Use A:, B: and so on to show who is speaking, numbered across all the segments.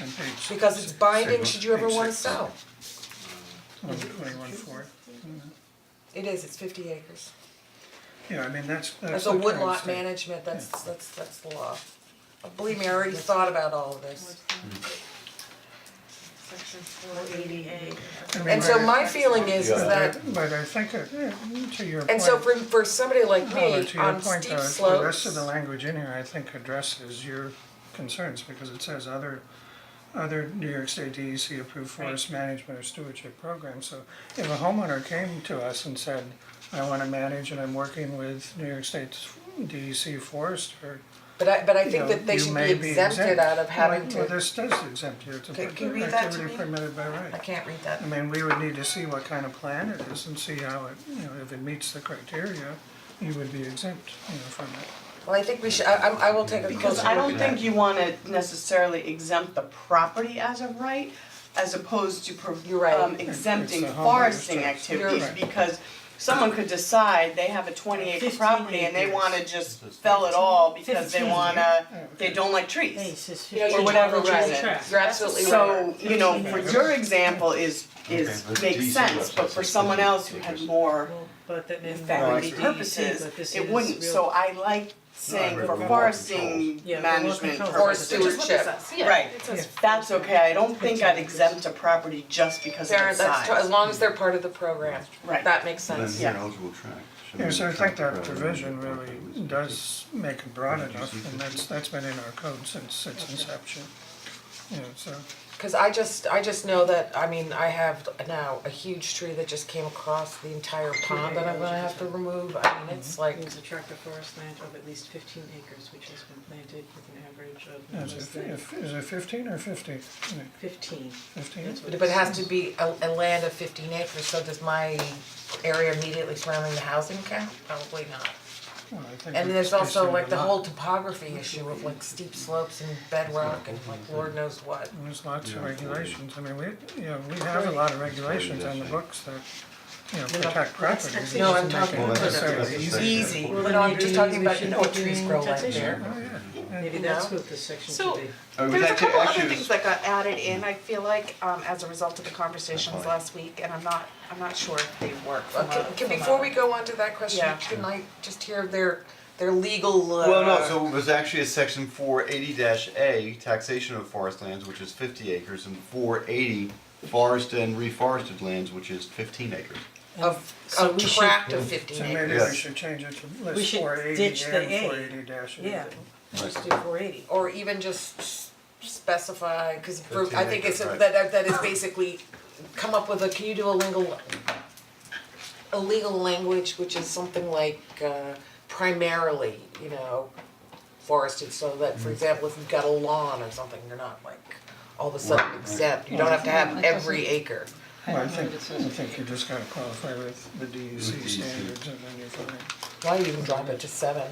A: on page
B: because it's binding, should you ever
A: Page
B: wanna
A: six.
B: sell?
A: one oh, twenty-one four.
B: It is, it's fifty acres.
A: Yeah, I mean, that's, that's
B: That's
A: the
B: a
A: kind of
B: woodlot
A: thing.
B: management, that's that's that's the law. Believe me, I already thought about all of this.
C: Section four eighty A.
A: I mean,
B: And so
A: but-
B: my feeling is is
A: but
B: that
A: I- But I think, it- yeah, to your point.
B: And so for for somebody like
A: Paula,
B: me
A: to your
B: on
A: point, uh,
B: steep
A: the,
B: slopes.
A: the rest of the language in here, I think, addresses your concerns, because it says other, other New York State DEC approved forest management or stewardship program, so if a homeowner came to us and said, I wanna manage and I'm working with New York State's DEC forester,
B: But I but I
A: you
B: think
A: know,
B: that they
A: you
B: should be
A: may be
B: exempted
A: exempt.
B: out of having
A: Well,
B: to.
A: Well, this does exempt you, it's a
B: Can- can you
A: per-
B: read that to
A: activity
B: me?
A: permitted by right.
B: I can't read that.
A: I mean, we would need to see what kind of plan it is and see how it, you know, if it meets the criteria, you would be exempt, you know, from it.
B: Well, I think we should, I I'm I will take a closer
D: Because I
B: look
D: don't
B: at that.
D: think you wanna necessarily exempt the property as a right, as opposed to pro-
B: You're right.
D: um, exempting
A: It's the homeowner's
D: foresting
A: choice.
D: activities,
A: You're right.
D: because someone could decide they have a twenty acre
E: 15
D: property and they
E: acres.
D: wanna just fell it all because they
E: 15.
D: wanna, they don't like trees.
E: Hey, it says
B: You know,
E: 15.
B: you're
D: or whatever
B: totally right.
D: reason.
B: You're absolutely right.
D: So, you know, for
A: Yeah.
D: your example is is
F: Okay, but
D: makes
F: DC
D: sense, but
F: website
D: for
F: says
D: someone else who
F: 15
D: had
F: acres.
D: more
E: But that in
D: family purposes, it wouldn't, so I like saying
F: read
D: for
F: remote
D: foresting
F: controls.
E: Yeah, remote
D: management
E: controls.
B: Or
D: purposes.
B: stewardship.
D: Right, that's okay, I don't think I'd exempt a property just because of
B: Darren,
D: its
B: that's,
D: size.
B: tr- as long as they're part of the program,
D: Right.
B: that makes
F: Then
B: sense.
F: you're an
D: Yeah.
F: eligible track.
A: Yeah, so I think that provision really does make it broad enough, and that's, that's been in our code since its inception. You know, so,
B: Cause I just, I just know that, I mean, I have now a huge tree that just came across the entire pond that I'm gonna have to remove, I mean, it's like,
E: Means a tract of forest land of at least fifteen acres which has been planted with an average of no
A: is
E: less
A: it,
E: than
A: if, is it fifteen or fifty? No,
E: fifteen.
A: Fifteen?
E: That's what
B: but it has
E: says.
B: to be a, a land of fifteen acres, so does my area immediately surrounding the housing count? Probably not.
A: Well, I think
B: And
A: we-
B: there's
A: we
B: also
A: said
B: like
A: a
B: the
A: lot.
B: whole topography issue of like steep slopes and bedrock and like lord knows what.
A: There's lots of
F: Yeah.
A: regulations, I mean, we, you know, we have a lot of regulations on the books that, you know, protect property.
E: that's-
B: No, I'm talking
F: Well,
B: about
F: that's, that's
B: the-
F: the
A: Easy.
F: section.
B: easy,
E: Well,
B: but
E: then
B: no, I'm
E: maybe
B: just talking
E: we
B: about, you
E: should
B: know,
E: put
B: trees
E: in
B: grow right
E: taxation.
B: there.
A: Oh, yeah.
E: Maybe that's what the section should
C: So-
E: be.
F: I mean,
C: There's a
F: that
C: couple other
F: Oh, actually
C: things
F: is-
C: that got uh, added in, I feel like, um, as a result of the conversations
F: Fine.
C: last week, and I'm not, I'm not sure if they work from a,
B: Okay, Uh, can,
C: from a-
B: before we go on to that question,
C: Yeah.
B: can I just hear their, their legal, uh.
F: Well, no, so it was actually a section four eighty A, taxation of forest lands, which is fifty acres, and four eighty, forest and reforested lands, which is fifteen acres.
B: Of,
E: So
B: of
E: we should-
B: tract of fifteen
A: So
B: acres.
A: maybe
F: Yes.
A: we should change it to
E: We
A: list
E: should
A: four eighty and
E: ditch the A.
A: four eighty dash
E: Yeah, just do four eighty.
B: Or even just s- specify, cause for, I
F: 15
B: think it's,
F: acres, right.
B: that, that- that is basically, come up with a, can you do a legal, a legal language, which is something like, uh, primarily, you know, forested, so that, for example, if you've got a lawn or something, you're not like, all of a sudden exempt, you don't have to have every acre.
A: Well, I
E: don't know
A: think,
E: what it
A: I
E: says.
A: think you just gotta qualify with the DEC
F: With E DEC.
A: standards and then you're fine.
B: Why you even drop it to seven?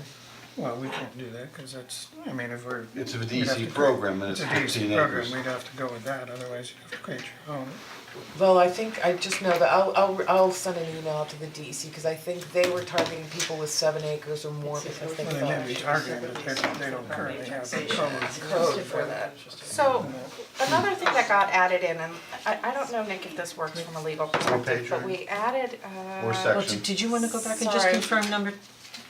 A: Well, we can't do that, cause that's, I mean, if we're.
F: It's a
A: we'd
F: DEC
A: have to go-
F: program, and it's 15
A: It's
F: acres.
A: a DEC program, we'd have to go with that, otherwise you'd have to create your own.
B: Well, I think, I just know that, I'll, I'll, I'll send an email out to the DEC, cause I think they were targeting people with seven acres or more, because they
A: Well, they may
B: thought
A: be targeted, but they don't, they don't currently have the code.
B: code for that.
C: So, another thing that got added in, and I, I don't know, Nick, if this works from a legal perspective,
F: page
C: but
F: are
C: we added, uh.
F: Or
E: Well,
F: section.
E: did did you wanna go back and just
C: Sorry.
E: confirm number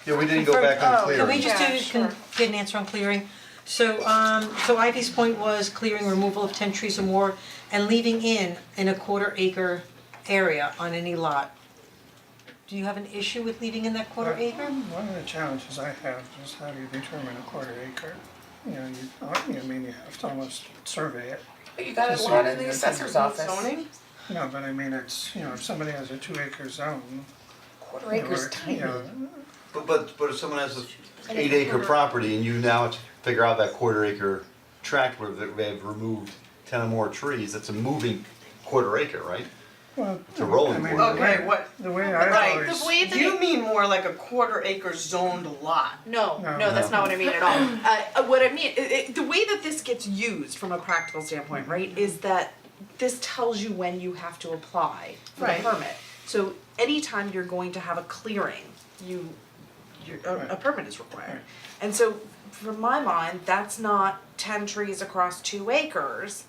F: Yeah, we didn't go back on
C: oh,
F: clear.
E: Can we just
C: Yeah,
E: do, can
C: sure.
E: get an answer on clearing? So um, so Ivy's point was clearing removal of ten trees or more and leaving in in a quarter acre area on any lot. Do you have an issue with leaving in that quarter acre?
A: Um, One of the challenges I have is how do you determine a quarter acre? You know, you, I mean, you have to almost survey it.
B: You got a lot in the assessor's office.
D: Zoning?
A: No, but I mean, it's, you know, if somebody has a two acre zone,
B: Quarter
A: or,
B: acre's
A: you
B: tiny.
A: know,
F: But but but if someone has a eight acre property and you now have to figure out that quarter acre tract where they- they've removed ten or more trees, that's a moving quarter acre, right?
A: well,
F: a rolling
A: I mean,
F: quarter.
A: the way-
D: Okay, what-
A: The way I
D: Right,
A: always.
C: The way that
D: You mean more like a quarter acre zoned lot.
C: No,
A: No.
C: no, that's not what I mean at all. Uh, uh, what I mean, i i the way that this gets used from a practical standpoint, right, is that this tells you when you have to apply for
D: Right.
C: the permit. So anytime you're going to have a clearing, you, you a, a permit is required. And so, from my mind, that's not ten trees across two acres.